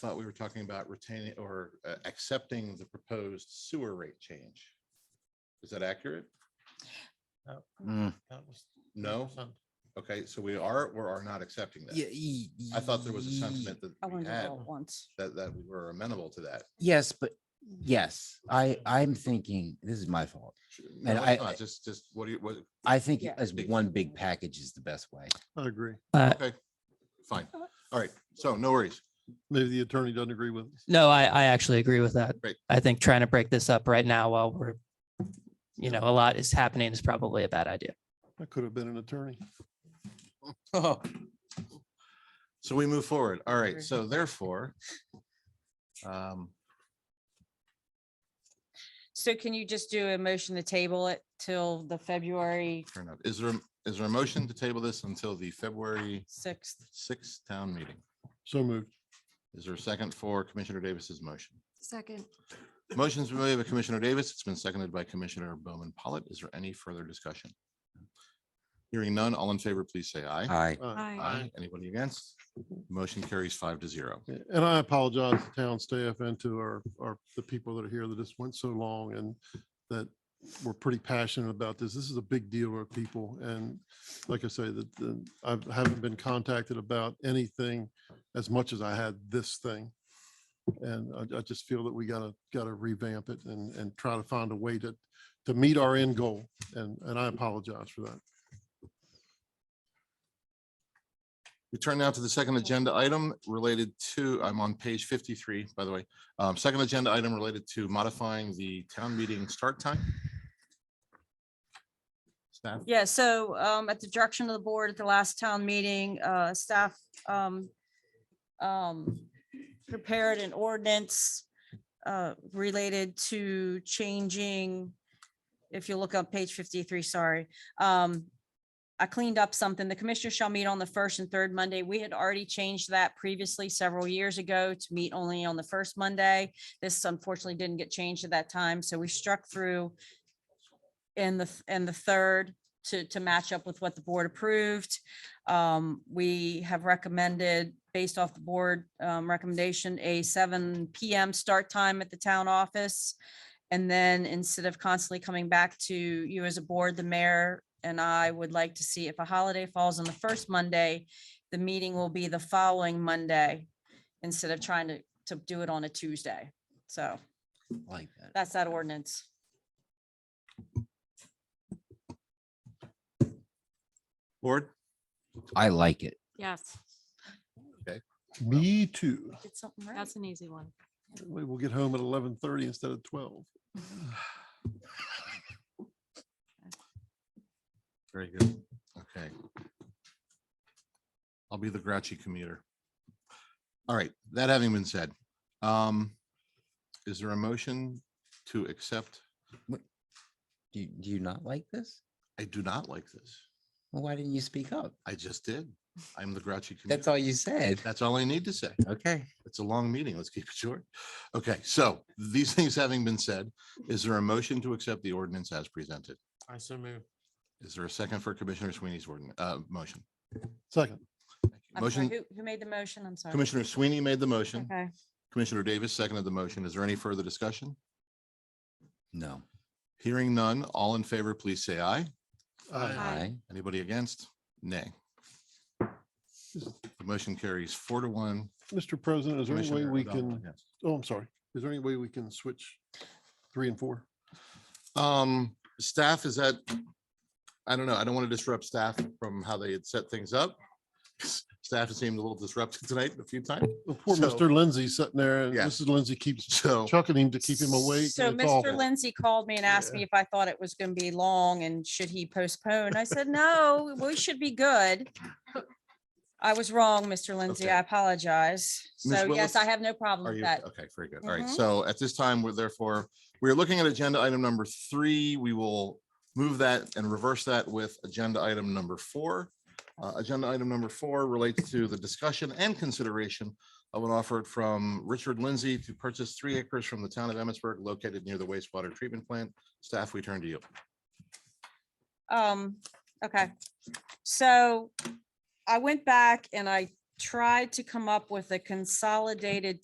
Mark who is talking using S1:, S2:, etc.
S1: thought we were talking about retaining or uh, accepting the proposed sewer rate change. Is that accurate?
S2: Mm.
S3: That was
S1: No?
S3: 10%.
S1: Okay, so we are, or are not accepting that. I thought there was a sentiment that
S4: I
S1: we
S4: want to do it
S1: had,
S4: all at once.
S1: that, that we were amenable to that.
S2: Yes, but yes, I, I'm thinking, this is my fault.
S1: No,
S2: And
S1: it's
S2: I-
S1: not, Just, just, what do you, what,
S2: I think
S4: Yeah.
S2: as one big package is the best way.
S3: I agree.
S1: okay, fine. All right, so no worries.
S3: Maybe the attorney doesn't agree with us.
S5: No, I, I actually agree with that.
S1: Great.
S5: I think trying to break this up right now while we're, you know, a lot is happening is probably a bad idea.
S3: I could have been an attorney.
S2: oh.
S1: So we move forward. All right, so therefore, um,
S4: So can you just do a motion to table it till the February
S1: fair enough. Is there, is there a motion to table this until the February
S4: sixth?
S1: sixth town meeting?
S3: So moved.
S1: Is there a second for Commissioner Davis's motion?
S6: Second.
S1: Motion's been made by Commissioner Davis. It's been seconded by Commissioner Bowman Pollitt. Is there any further discussion? Hearing none, all in favor, please say aye.
S2: I,
S3: Aye.
S6: Aye.
S1: Anybody against? Motion carries five to zero.
S3: Yeah, And I apologize to town staff and to our, our, the people that are here that this went so long and that were pretty passionate about this. This is a big deal for people. And like I say, that the- I haven't been contacted about anything as much as I had this thing. And I, I just feel that we gotta, gotta revamp it and, and try to find a way to, to meet our end goal. And, and I apologize for that.
S1: We turn now to the second agenda item related to, I'm on page fifty-three, by the way. Um, second agenda item related to modifying the town meeting start time. Staff,
S4: Yeah, so um, at the direction of the board at the last town meeting, uh, staff um, um, prepared an ordinance uh, related to changing, if you look up page fifty-three, sorry. um, I cleaned up something. The commissioners shall meet on the first and third Monday. We had already changed that previously several years ago to meet only on the first Monday. This unfortunately didn't get changed at that time, so we struck through in the, th- and the third to, to match up with what the board approved. Um, we have recommended, based off the board, um, recommendation, a seven PM start time at the town office. And then instead of constantly coming back to you as a board, the mayor and I would like to see if a holiday falls on the first Monday, the meeting will be the following Monday instead of trying to, to do it on a Tuesday. So
S2: like that.
S4: that's that ordinance.
S1: board,
S2: I like it.
S6: Yes,
S3: Me too.
S4: Did something right.
S6: that's an easy one.
S3: We will get home at eleven thirty instead of twelve.
S1: very good. Okay. I'll be the grouchy commuter. All right, that having been said, um, is there a motion to accept?
S2: Do, you- do you not like this?
S1: I do not like this.
S2: Well, why didn't you speak up?
S1: I just did. I'm the grouchy
S2: That's
S1: commuter.
S2: all you said.
S1: That's all I need to say.
S2: Okay.
S1: It's a long meeting. Let's keep it short. Okay, so these things having been said, is there a motion to accept the ordinance as presented?
S3: I so move.
S1: Is there a second for Commissioner Sweeney's ordinance, uh, motion?
S3: Second.
S4: I'm sorry,
S1: Motion,
S4: Who, who made the motion? I'm sorry.
S1: Commissioner Sweeney made the motion.
S4: Okay,
S1: Commissioner Davis seconded the motion. Is there any further discussion?
S2: No.
S1: Hearing none, all in favor, please say aye.
S3: Aye.
S2: I,
S6: Aye.
S1: Anybody against? Nay. The motion carries four to one.
S3: Mr. President, is there any way
S1: Commissioner
S3: we
S1: O'Donnell
S3: can,
S1: against.
S3: oh, I'm sorry, is there any way we can switch three and four?
S1: Um, staff is that, I don't know, I don't want to disrupt staff from how they had set things up. Staff has seemed a little disrupted tonight a few times,
S3: Well, Oh, Poor
S1: So-
S3: Mr. Lindsay sitting there and
S1: Yeah.
S3: Mrs. Lindsay keeps
S1: so.
S3: chucking him to keep him awake.
S4: So
S3: and it's
S4: Mr.
S3: awful.
S4: Lindsay called me and asked
S3: Yeah.
S4: me if I thought it was gonna be long and should he postpone? I said, no, we should be good. I was wrong, Mr. Lindsay.
S1: Okay.
S4: I apologize.
S1: Ms.
S4: So yes, I
S1: Willis,
S4: have no problem
S1: Are
S4: with
S1: you,
S4: that.
S1: okay, very good. All right.
S4: Mhm.
S1: So at this time, we're therefore, we're looking at agenda item number three. We will move that and reverse that with agenda item number four. Uh, agenda item number four relates to the discussion and consideration of an offer from Richard Lindsay to purchase three acres from the town of Emmitsburg located near the wastewater treatment plant. Staff, we turn to you.
S4: Um, okay, so I went back and I tried to come up with a consolidated